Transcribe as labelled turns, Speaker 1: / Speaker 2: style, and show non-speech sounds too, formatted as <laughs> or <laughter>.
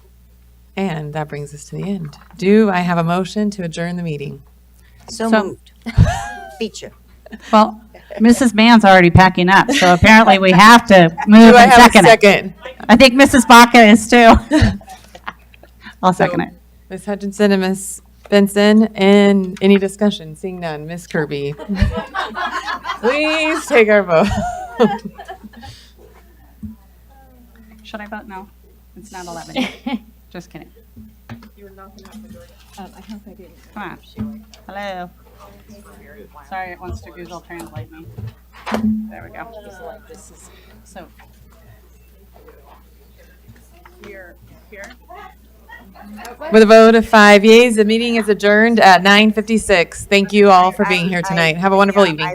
Speaker 1: And that brings us to the end. Do I have a motion to adjourn the meeting?
Speaker 2: So
Speaker 3: So-
Speaker 2: moved. Feature.
Speaker 3: Well, Mrs. Mann's already packing up, so apparently we have to move
Speaker 1: Do I
Speaker 3: and
Speaker 1: have a
Speaker 3: second it.
Speaker 1: second?
Speaker 3: I think Mrs. Baca
Speaker 1: <laughs>
Speaker 3: is too. I'll second it.
Speaker 1: Ms. Hutchinson and Ms. Benson, and any discussion? Seeing none, Ms.
Speaker 3: <laughs>
Speaker 1: Kirby. Please take our vote.
Speaker 3: Should I vote no? It's not 11. <laughs> Just kidding. Um, Come on. Hello. Sorry, it wants to Google translate me. There we go. So. Here, here.
Speaker 1: With a vote of five yeas, the meeting is adjourned at 9:56. Thank you all for being here tonight. Have a wonderful evening.